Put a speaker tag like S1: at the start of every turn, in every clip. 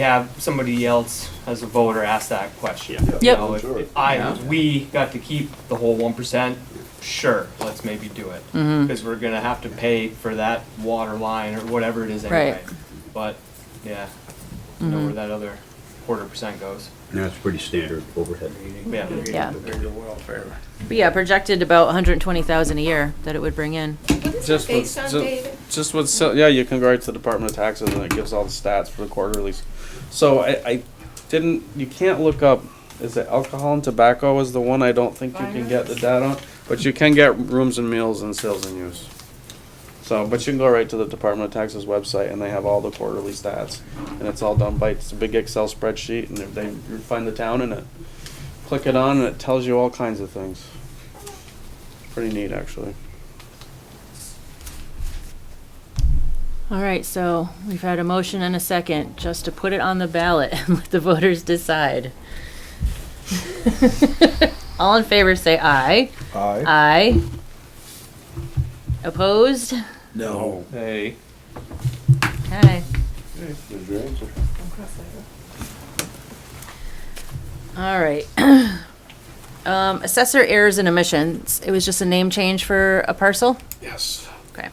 S1: have somebody else as a voter ask that question.
S2: Yeah.
S3: Yeah,
S1: You
S4: Yep.
S1: know, if-
S3: Sure.
S1: if I,
S4: Yeah.
S1: we got to keep the whole one percent, sure, let's maybe do it.
S4: Mm-hmm.
S1: Cause we're gonna have to pay for that water line or whatever it is anyway. But, yeah, you know
S4: Mm-hmm.
S1: where that other quarter percent goes.
S2: That's pretty standard overhead.
S1: Yeah.
S4: Yeah.
S5: welfare.
S4: But yeah, projected about 120,000 a year that it would bring in.
S6: Just
S7: Based
S6: what's-
S7: on
S6: ju-
S7: data?
S6: Just what's, so- yeah, you can go right to the Department of Taxes and it gives all the stats for the quarterlies. So I, I didn't, you can't look up, is it alcohol and tobacco is the one I don't think you can get the data on, but you can get rooms and meals and sales and use. So, but you can go right to the Department of Taxes website and they have all the quarterly stats. And it's all done by, it's a big Excel spreadsheet and if they, you find the town in it. Click it on and it tells you all kinds of things. Pretty neat, actually.
S4: All right, so we've had a motion and a second just to put it on the ballot and let the voters decide. All in favor say aye.
S3: Aye.
S4: Aye. Opposed?
S3: No.
S1: Hey.
S4: Okay.
S3: There's your answer.
S4: All right. Um, assessor errors and omissions. It was just a name change for a parcel?
S6: Yes.
S4: Okay.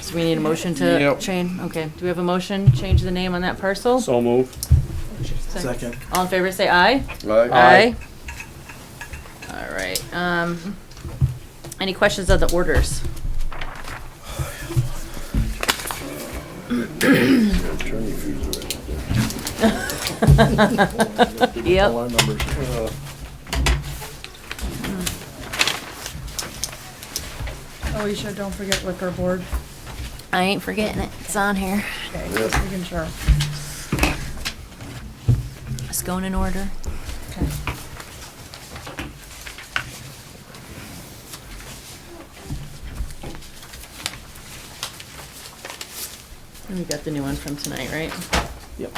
S4: So we need a motion to
S6: Yep.
S4: change, okay, do we have a motion, change the name on that parcel?
S6: So moved.
S5: Second.
S4: All in favor, say aye.
S6: Aye.
S4: All right, um, any questions on the orders?
S3: Your attorney fees are right
S4: Yep.
S3: All our numbers.
S8: Alicia, don't forget liquor board.
S4: I ain't forgetting it, it's on here.
S8: Okay, just making sure.
S4: It's going in order.
S8: Okay.
S4: And we got the new one from tonight, right?
S6: Yep.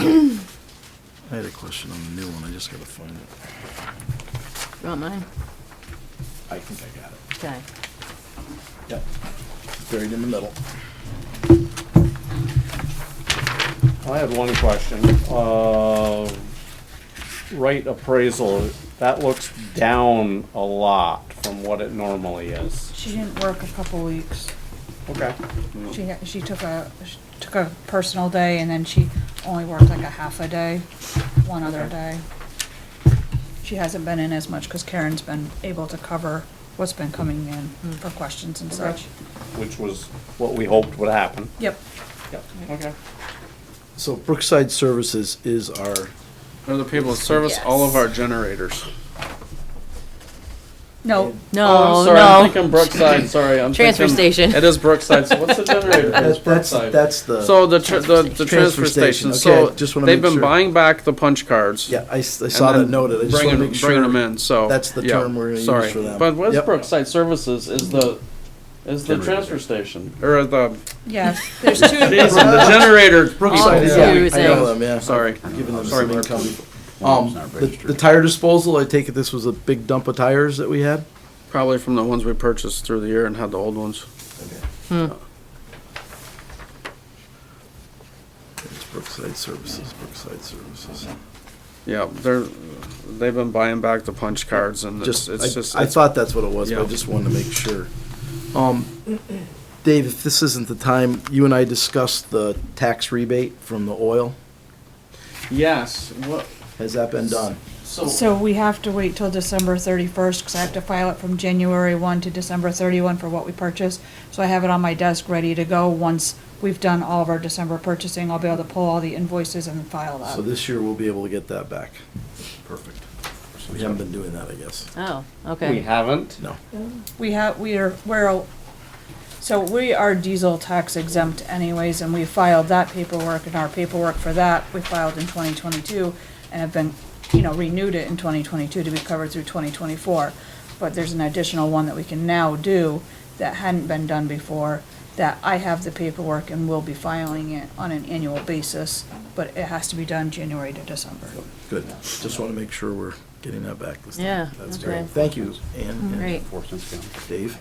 S5: I had a question on the new one, I just gotta find it.
S4: You want mine?
S5: I think I got it.
S4: Okay.
S5: Yep. Buried in the middle.
S9: I had one question. Uh, Right appraisal, that looks down a lot from what it normally is.
S8: She didn't work a couple weeks.
S9: Okay.
S8: She, ha- she took a, she took a personal day and then she only worked like a half a day, one other day. She hasn't been in as much because Karen's been able to cover what's been coming in for questions and such.
S9: Which was what we hoped would happen.
S8: Yep.
S6: Okay.
S5: So Brookside Services is our,
S6: They're the people that service all of our generators.
S8: No,
S6: Oh,
S4: No,
S6: I'm sorry, I'm
S4: no.
S6: thinking Brookside. Sorry, I'm
S4: Transfer
S6: thinking-
S4: station.
S6: It is Brookside. So what's the generator?
S5: that's,
S6: It's
S5: that's,
S6: Brookside.
S5: that's the.
S6: so the tr- the, the transfer
S5: Transfer
S6: station.
S5: station,
S6: So
S5: okay, just wanna
S6: they've
S5: make
S6: been
S5: sure.
S6: buying back the punch cards.
S5: Yeah, I, s- I
S6: and
S5: saw that
S6: then
S5: noted, I just
S6: bringing,
S5: wanna make sure.
S6: bringing them in. So
S5: that's the
S6: yeah,
S5: term we're gonna use
S6: sorry.
S5: for them.
S6: But West
S5: Yep.
S6: Brookside Services is the is the
S2: Generator.
S6: transfer station or the
S8: yes, there's two,
S6: geez, the generator. Oh,
S5: Brookside,
S4: All
S5: Oh, yeah,
S4: confusing.
S5: I know them, yeah.
S6: Sorry.
S5: Giving them
S6: Sorry,
S5: some
S6: Mark.
S5: income.
S2: One's
S5: Um,
S2: not
S5: the,
S2: registered.
S5: the tire disposal, I take it this was a big dump of tires that we had?
S6: Probably from the ones we purchased through the year and had the old ones.
S5: It's Brookside Services, Brookside Services.
S6: Yeah, they're they've been buying back the punch cards and
S5: Just,
S6: it's, it's just
S5: I, I
S6: it's
S5: thought that's what it was, but I
S6: Yeah.
S5: just wanted to make sure. Um, Dave, if this isn't the time, you and I discussed the tax rebate from the oil.
S6: Yes. What?
S5: Has that been done?
S8: so we have to wait till December thirty-first because I have to file it from January one to December thirty-one for what we purchased. So I have it on my desk ready to go. Once we've done all of our December purchasing, I'll be able to pull all the invoices and file
S5: So
S8: that.
S5: this year we'll be able to get that back. Perfect. We haven't been doing that, I guess.
S4: Oh,
S9: We
S4: okay.
S9: haven't.
S5: No.
S8: We have, we are, we're, a- so we are diesel tax exempt anyways, and we filed that paperwork and our paperwork for that, we filed in twenty twenty-two and have been, you know, renewed it in twenty twenty-two to be covered through twenty twenty-four. But there's an additional one that we can now do that hadn't been done before, that I have the paperwork and will be filing it on an annual basis, but it has to be done January to December.
S5: Good. Just want to make sure we're getting that back this time.
S4: Yeah,
S5: That's
S4: okay.
S5: great. Thank you, Ann and
S4: Great.
S2: Enforcement, yeah.
S5: Dave.